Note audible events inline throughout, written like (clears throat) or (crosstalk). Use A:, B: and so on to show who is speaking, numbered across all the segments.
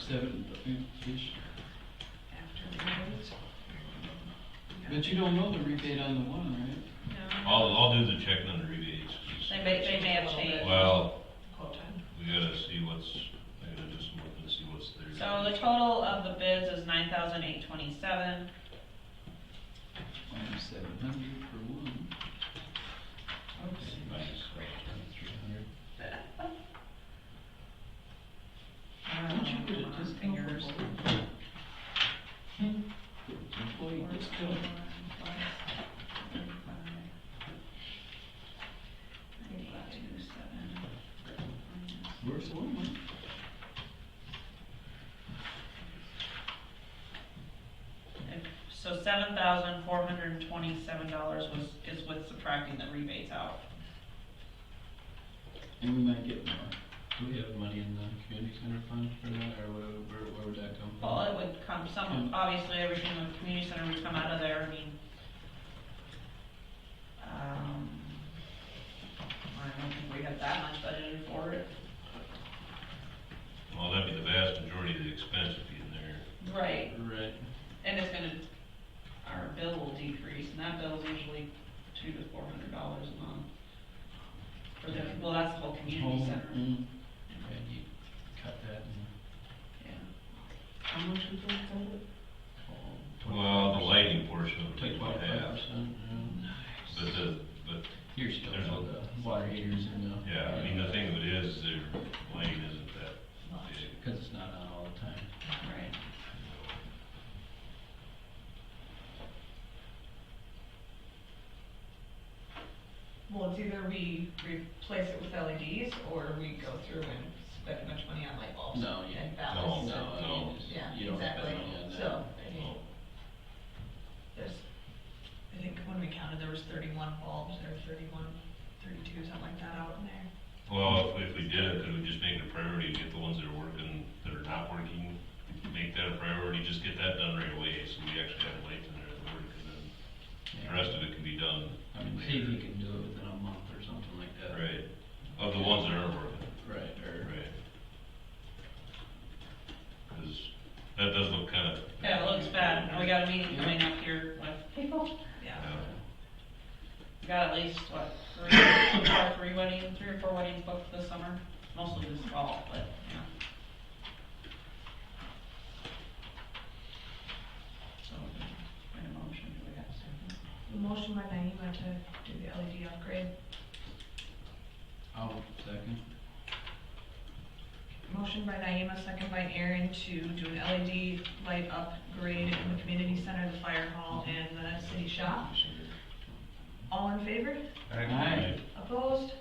A: seven, ish. But you don't know the rebate on the one, right?
B: I'll, I'll do the checking on the rebates.
C: They may, they may have changed.
B: Well, we gotta see what's, I gotta just look and see what's there.
C: So the total of the bids is nine thousand eight twenty-seven,
A: Minus seven hundred for one.
B: Nice.
A: Three hundred.
C: I don't
A: Don't you get
C: know,
A: a
C: my
A: discount?
C: fingers.
A: Employee discount. Where's the one, man?
C: So seven thousand four hundred and twenty-seven dollars was, is with subtracting the rebates out.
A: And we might get more. Do we have money in the community center fund for that, or where, where- where would that come from?
C: Well, it would come, some,
A: Hmm.
C: obviously, everything in the community center would come out of there, I mean. Um, I don't think we have that much budgeted for it.
B: Well, that'd be the vast majority of the expense would be in there.
C: Right.
A: Right.
C: And it's gonna, our bill will decrease, and that bill's usually two to four hundred dollars a month. For the, well, that's the whole community
A: Home,
C: center,
A: mm. Okay, you cut that and.
C: yeah.
A: How much was that,
B: Well, the lighting portion would be
A: Take
B: about
A: twenty-five
B: half,
A: percent,
B: but the, but,
A: You're still,
B: There's
A: all the water heaters and the.
B: yeah, I mean, the thing of it is, their lighting isn't that big.
A: Because it's not on all the time.
C: Right.
D: Well, it's either we replace it with LEDs or we go through and spend much money on light bulbs.
A: No, yeah.
D: And
B: No,
D: ballasts.
A: No, I
B: no.
A: mean, it's-
D: Yeah,
A: you don't have
D: exactly.
A: any on that.
D: So, I mean,
B: Well,
D: there's, I think when we counted, there was thirty-one bulbs or 31, 32, something like that out in there.
B: Well, if, if we did it, could we just make it a priority, get the ones that are working, that are not working, make that a priority, just get that done right away, so we actually have lights in there that work, and then the rest of it can be done
A: I mean, see if you can do it within a month or something like that.
B: Right, of the ones that aren't working,
A: Right, or,
B: right. Cause that does look kinda.
C: Yeah, it looks bad, and we got a meeting coming up here with people,
D: Yeah.
B: Yeah.
C: we got at least, what, three, (coughs) two or three weddings, three or four weddings booked this summer, mostly this fall, but, yeah. So, in a motion, do we have a
D: Motion
C: second?
D: by Naima to do the LED upgrade.
A: I'll second.
D: Motion by Naima, second by Aaron to do an LED light upgrade in the community center, the fire hall, and the city shop. All in favor?
A: Aye.
D: Opposed?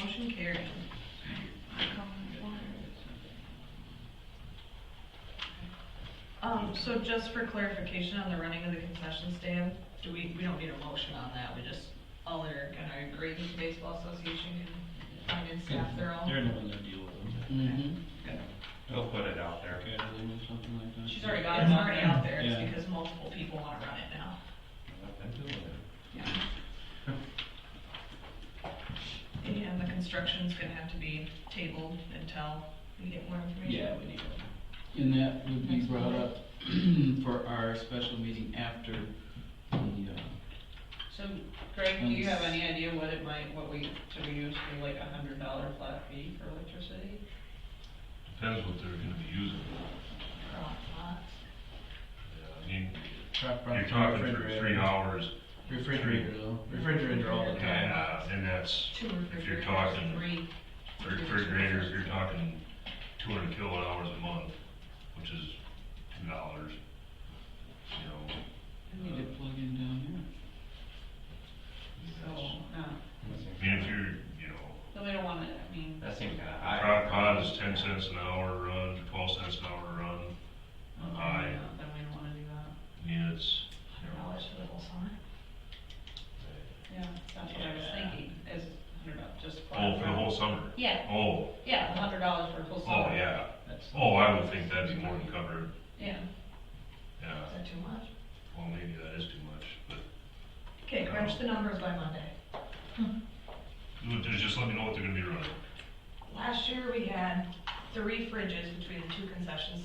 D: Motion carried. Um, so just for clarification on the running of the concession stand, do we, we don't need a motion on that, we just, all are gonna agree that the baseball association can find and staff their own?
A: They're the ones that deal with them.
D: Mhm.
B: They'll put it out there.
A: Catering or something like that.
C: She's already got it
D: It's already out
C: on
D: there, it's
A: Yeah.
D: because multiple people wanna run it now. And the construction's gonna have to be tabled until we get more information.
A: Yeah, we need one. And that would be brought up (clears throat) for our special meeting after the, uh,
C: So Greg, do you have any idea what it might, what we, should we use for like a hundred dollar flat fee for electricity?
B: Depends what they're gonna be using.
D: For all spots.
B: Yeah, I mean,
A: truck
B: you're
A: front
B: talking for three
A: refrigerator.
B: hours,
A: Refrigerator though. Refrigerator all the time.
B: yeah, and that's
D: Two
B: If you're
D: refrigerators,
B: talking-
D: three.
B: refrigerators, you're talking two hundred kilowatt hours a month, which is two dollars. You know,
A: I need to plug in down here.
C: So, no,
B: I mean, if you're, you know,
C: so we don't wanna, I mean,
E: That seems kinda high.
B: crock pot is ten cents an hour run, twelve cents an hour run,
D: um,
B: Aye.
C: uh, then we don't wanna do that.
B: I mean, it's,
D: Hundred dollars for the whole summer.
C: Yeah, that's what I was
B: Yeah.
C: thinking, is a hundred dollars, just.
B: oh,
C: flat
B: for the
C: front.
B: whole summer,
C: Yeah,
B: oh,
C: yeah, a hundred dollars for a full
B: oh,
C: summer.
B: yeah,
A: That's-
B: oh, I would think that'd be more than covered,
C: Yeah,
B: yeah,
D: Is that too much?
B: well, maybe that is too much, but,
D: Okay, crunch the numbers by Monday.
B: you would- just let me know what they're gonna be running.
D: Last year, we had three fridges between the two concession